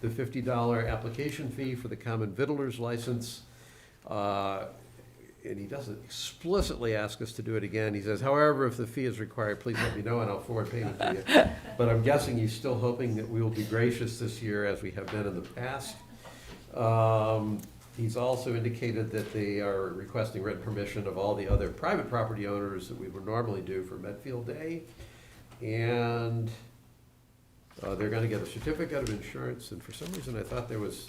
the fifty dollar application fee for the common vittler's license. Uh, And he doesn't explicitly ask us to do it again. He says, however, if the fee is required, please let me know and I'll forward payment to you. But I'm guessing he's still hoping that we will be gracious this year as we have been in the past. Um, He's also indicated that they are requesting written permission of all the other private property owners that we would normally do for Medfield Day. And uh, they're gonna get a certificate of insurance, and for some reason I thought there was,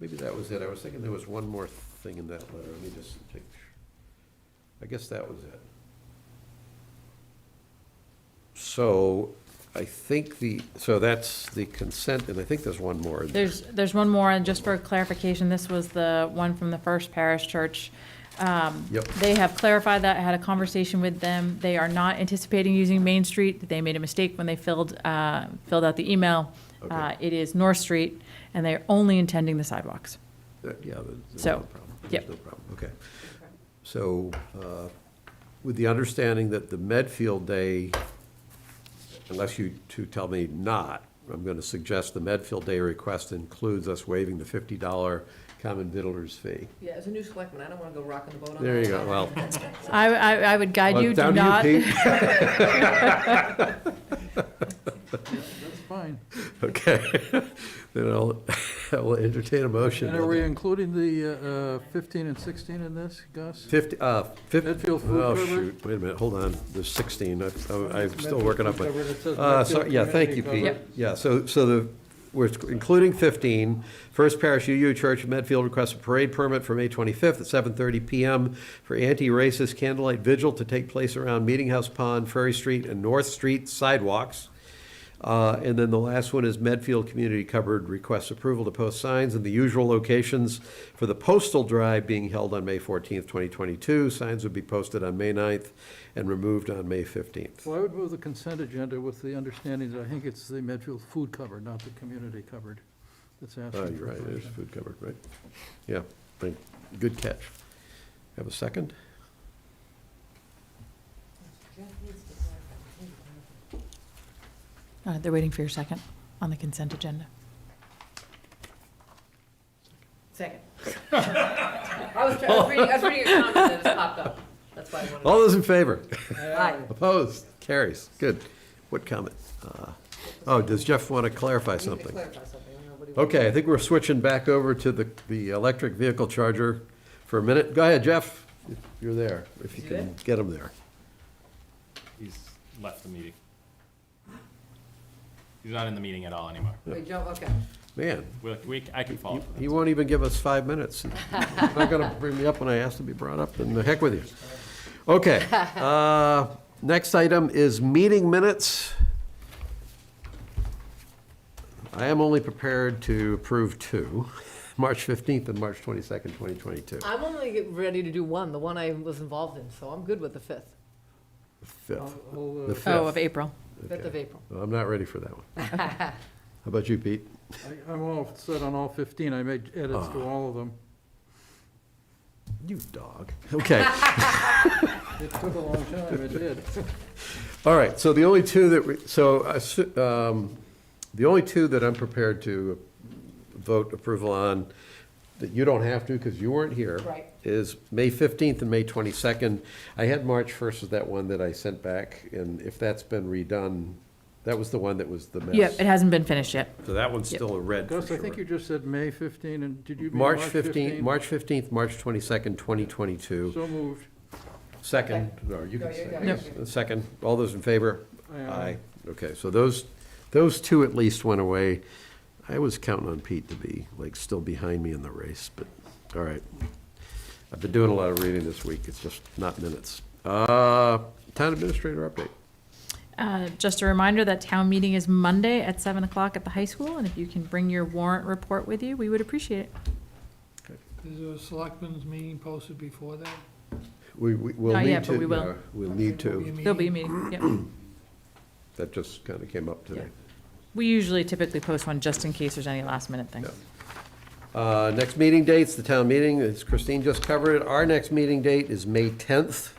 maybe that was it, I was thinking there was one more thing in that letter, let me just take. I guess that was it. So, I think the, so that's the consent, and I think there's one more. in there. There's, there's one more, and just for clarification, this was the one from the First Parish Church. Um, Yep. They have clarified that, I had a conversation with them. They are not anticipating using Main Street. They made a mistake when they filled, uh, filled out the email. Okay. Uh, It is North Street, and they're only intending the sidewalks. Uh, Yeah, there- there's So, no problem. There's yep. No problem, okay. So, uh, with the understanding that the Medfield Day, unless you two tell me not, I'm going to suggest the Medfield Day request includes us waiving the $50 common vittler's fee. Yeah, as a new selectman, I don't wanna go rocking the boat on that. There you go, well. I, I, I would guide well, you, do down to not. Pete. That's fine. Okay. Then I'll, I will entertain a motion. And are we including the uh, uh, 15 and 16 in this, Gus? 50, uh, 50. Medfield Food Oh, Cover? shoot, wait a minute, hold on, there's 16, I- I'm I'm still working up my. Medfield Food Cover that says Uh, so- Medfield Yeah, thank you, Community Pete. Cover. Yeah, so, so the, we're including 15. First Parish UU Church of Medfield requests a parade permit for May 25th at 7:30 PM for anti-racist candlelight vigil to take place around Meeting House Pond, Ferry Street, and North Street sidewalks. Uh, And then the last one is Medfield Community Cupboard requests approval to post signs in the usual locations for the postal drive being held on May 14th, 2022. Signs would be posted on May 9th and removed on May 15th. Well, I would move the consent agenda with the understanding that I think it's the Medfield Food Cover, not the Community Cupboard, that's Oh, you're asking for right, there's permission. food covered, right? Yeah, right. good catch. Have a second? Uh, They're waiting for your second on the consent agenda. Second. I was, try- I was reading, I was reading your comment and it just popped up. That's why I wanted. All those in favor? Aye. Opposed? Carries, good. What comment? Uh, Oh, does Jeff want to clarify You need to something? clarify something. I don't know what he wants. Okay, I think we're switching back over to the, the electric vehicle charger for a minute. Go ahead, Jeff, if you're there, if you Is he can get him there. He's left the meeting. He's not in the meeting at all anymore. Wait, Joe, okay. Man, We, we, I can Oh, follow. he- up with him. he won't even give us five minutes. He's not going to bring me up when I ask to be brought up, and the heck with you. Okay, uh, next item is meeting minutes. I am only prepared to approve two, March 15th and March 22nd, 2022. I'm only get- ready to do one, the one I was involved in, so I'm good with the fifth, Fifth. I'll, The Oh, uh, fifth. of April. fifth of April. Well, I'm not ready for that one. How about you, Pete? uh, I- I'm all set on all 15, I made edits to Ah. all of them. You dog. Okay, It took a long time, it did. all right, so the only two that, we so, I su- um, the only two that I'm prepared to vote approval on, that you don't have to, because you weren't here, is Right. May 15th and May 22nd. I had March 1st as that one that I sent back, and if that's been redone, that was the one that was the mess. Yeah, it hasn't been finished yet. So that one's Yep. still a red for Gus, I think sure. you just said May 15, and did you? mean March 15th, 15? March 15th, March 22nd, 2022. So moved. Second, or you can No, you say, go. I guess. second, all those in favor? Aye, aye. Okay, so those, those two at least went away. I was counting on Pete to be, like, still behind me in the race, but, all right. I've been doing a lot of reading this week, it's just not minutes. Uh, Town administrator update. Uh, Just a reminder that town meeting is Monday at 7 o'clock at the high school, and if you can bring your warrant report with you, we would appreciate it. Is there a selectmen's meeting posted before that? We, we- we'll Not need yet, to. but we will. yeah, We'll need to. There'll be a meeting, yep. That just kind of came up today. We usually typically post one just in case there's any last minute things. Yeah. Uh, Next meeting dates, the town meeting, as Christine just covered, it. our next meeting date is May 10th.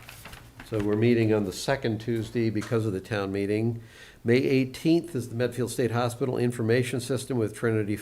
So we're meeting on the second Tuesday because of the town meeting. May eighteenth is the Medfield State Hospital Information System with Trinity